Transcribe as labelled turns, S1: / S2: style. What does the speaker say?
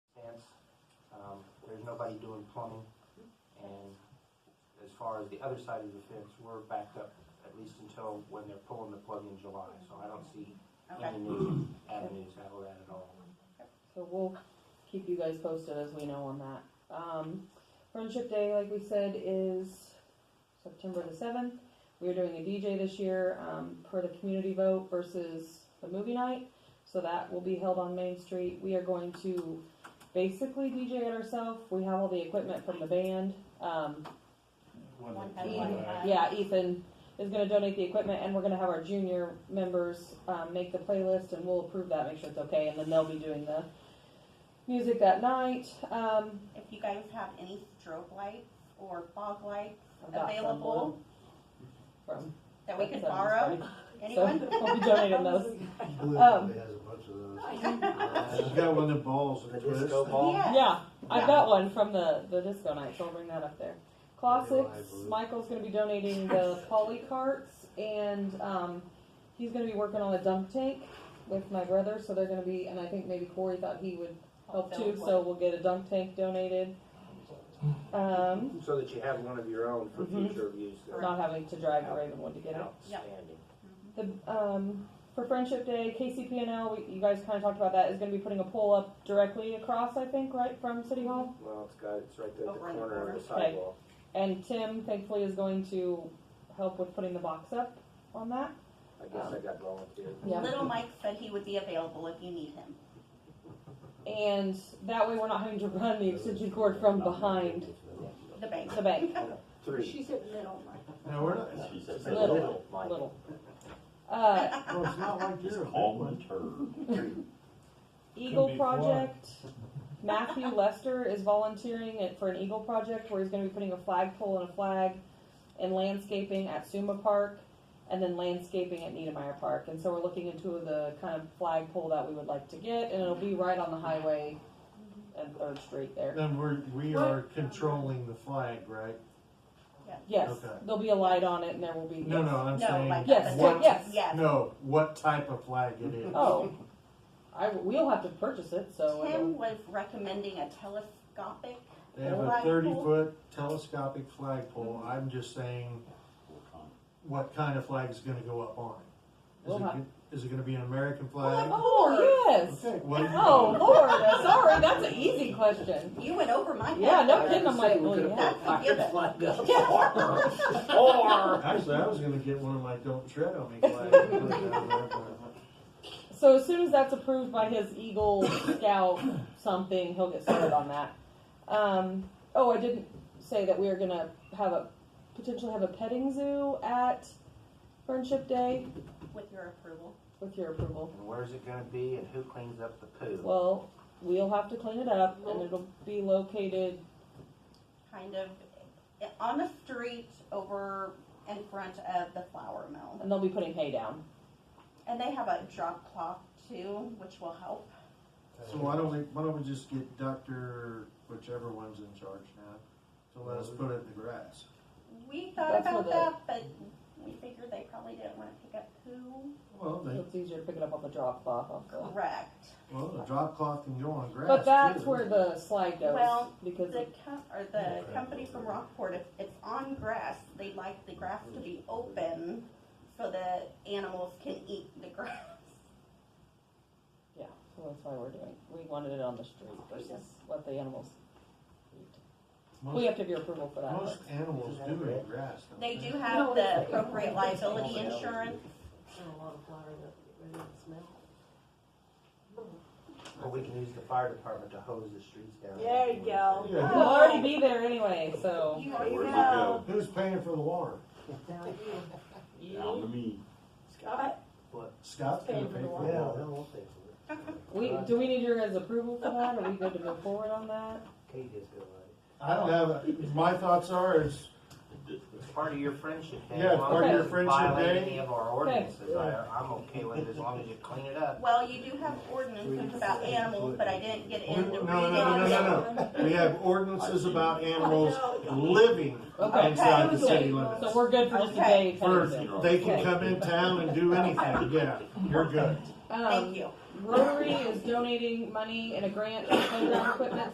S1: Um, nobody doing plumbing. And as far as the other side of the fence, we're backed up at least until when they're pulling the plug in July. So I don't see
S2: Okay,
S1: any new avenues out of that at all.
S3: So we'll keep you guys posted as we know on that. Um, Friendship Day, like we said, is September the seventh. We are doing a DJ this year, um, per the community vote versus the movie night. So that will be held on Main Street. We are going to basically DJ it ourselves. We have all the equipment from the band. Um,
S2: One
S4: that-
S2: at
S3: one
S2: a time.
S3: yeah, Ethan is gonna donate the equipment and we're gonna have our junior members, um, make the playlist and we'll approve that, make sure it's okay, and then they'll be doing the music that night, um.
S2: if you guys have any strobe lights or fog lights
S3: I've got some
S2: available
S3: From.
S2: that we could
S3: from-
S2: borrow, anyone?
S3: So, we'll be donating those. Um,
S5: Blue probably has a bunch of those.
S1: Uh,
S5: She's got one of the balls
S1: The
S5: that twists.
S1: disco ball.
S2: Yeah.
S3: Yeah, I've
S2: Yeah.
S3: got one from the, the disco night, so I'll bring that up there. Classics, Michael's gonna be donating the poly carts and, um, he's gonna be working on a dump tank with my brother, so they're gonna be, and I think maybe Corey thought he would help oh, too, so we'll get a dump tank donated. Um,
S1: So that you have one of your own for
S3: Mhm.
S1: future use. there.
S3: not having to drive to Ravenwood to get it.
S1: Outstanding.
S3: The, um, for Friendship Day, KCPNL, we, you guys kind of talked about that, is going to be putting a pole up directly across, I think, right from City Hall.
S1: Well, it's got, it's right there at the
S2: Over on the
S1: corner of the
S3: corner. Okay.
S1: sidewalk.
S3: And Tim, thankfully, is going to help with putting the box up on that.
S1: I guess I got volunteered.
S3: Yeah.
S2: Little Mike said he would be available if you need him.
S3: And that way, we're not having to run the extension cord from behind
S2: The bank.
S3: the bank.
S1: Three.
S4: She said middle, Mike.
S5: Now, we're not,
S6: She said,
S3: Little.
S6: little, Mike.
S3: Little. Uh,
S5: well, it's not like
S6: Just
S5: you're a big
S6: calm
S5: one.
S6: and turn.
S3: Eagle
S5: be
S3: Project. Matthew Lester is volunteering it for an Eagle Project where he's going to be putting a flagpole and a flag and landscaping at Suma Park and then landscaping at Niedermeyer Park. And so we're looking into the kind of flagpole that we would like to get, and it'll be right on the highway and Third Street there.
S5: Then we're, we
S3: What?
S5: are controlling the flag, right?
S3: Yes,
S5: Okay.
S3: there'll be a light on it, and there will be.
S5: No, no, I'm
S2: No,
S5: saying.
S2: like
S3: Yes,
S2: what?
S3: yes.
S2: Yes.
S5: No, what type of flag it is.
S3: Oh, I, we'll have to purchase it, so.
S2: Tim was recommending a telescopic.
S5: They have a
S2: Flagpole.
S5: thirty foot telescopic flagpole. I'm just saying, what kind of flag is gonna go up on it? Is
S3: We'll
S5: it?
S3: have-
S5: go- Is it gonna be an American flag?
S3: Oh, yes.
S5: Okay, what?
S3: Oh, Lord, sorry, that's an easy question.
S2: You went over my head.
S3: Yeah, no kidding. Oh, I'm like, well, yeah.
S2: That's a given.
S6: Or,
S5: Actually, I was gonna get one of my don't tread on me flags. and put it down there, but-
S3: So as soon as that's approved by his Eagle Scout something, he'll get started on that. Um, oh, I didn't say that we are gonna have a potentially have a petting zoo at Friendship Day
S2: With your approval.
S3: with your approval.
S1: And where's it gonna be and who cleans up the poo?
S3: Well, we'll have to clean it up, and it'll be located.
S2: kind of eh, on the street over in front of the flour mill.
S3: And they'll be putting hay down.
S2: And they have a drop cloth too, which will help.
S5: So why don't we, why don't we just get Dr. whichever one's in charge now to let us put it in the grass?
S2: We thought
S3: That's
S2: about
S3: what
S2: that, but we figured they probably didn't want to pick up poo.
S5: Well, they,
S3: It's easier to pick it up on the drop off. Off the.
S2: Correct.
S5: well, the drop cloth can go on grass.
S3: But that's
S5: too.
S3: where the slide goes
S2: Well,
S3: because
S2: The com- or the company from Rockport, if it's on grass, they like the grass to be open so that animals can eat the grass.
S3: Yeah, so that's why we're doing, we wanted it on the street versus what the animals eat. We
S5: Most,
S3: have to give your approval for that.
S5: most
S3: but-
S5: animals do eat grass. don't
S2: They do have the appropriate liability insurance.
S4: a lot of flour that, that didn't smell.
S1: Or we can use the fire department to hose the streets down.
S4: There you go.
S5: Yeah.
S3: We'll already be there anyway, so.
S2: You
S6: where'd you
S4: know.
S6: go?
S5: Who's paying for the water?
S6: Down to me.
S4: Scott?
S5: Scott's gonna pay for the water.
S3: We,
S1: Uh,
S3: do we need your guys' approval for that? Are we good to move forward on that?
S5: I don't have, a- my thoughts are is,
S1: It's part of your friendship day.
S5: Yeah, it's part
S3: of
S5: your friendship
S1: Violate
S5: day.
S1: any of our ordinances, I, I'm okay with it as long as you clean it up.
S2: Well, you do have ordinances about animals, but I didn't get
S5: no,
S2: into
S5: no,
S2: reading.
S5: no, no, no, no. We have ordinances about animals living
S3: Okay.
S5: inside the city
S3: Okay.
S5: limits.
S3: So we're good for just a day kind of thing.
S5: For, they can come in town and do anything, yeah, you're good.
S3: Um,
S2: Thank you.
S3: Rotary is donating money in a grant for playground equipment,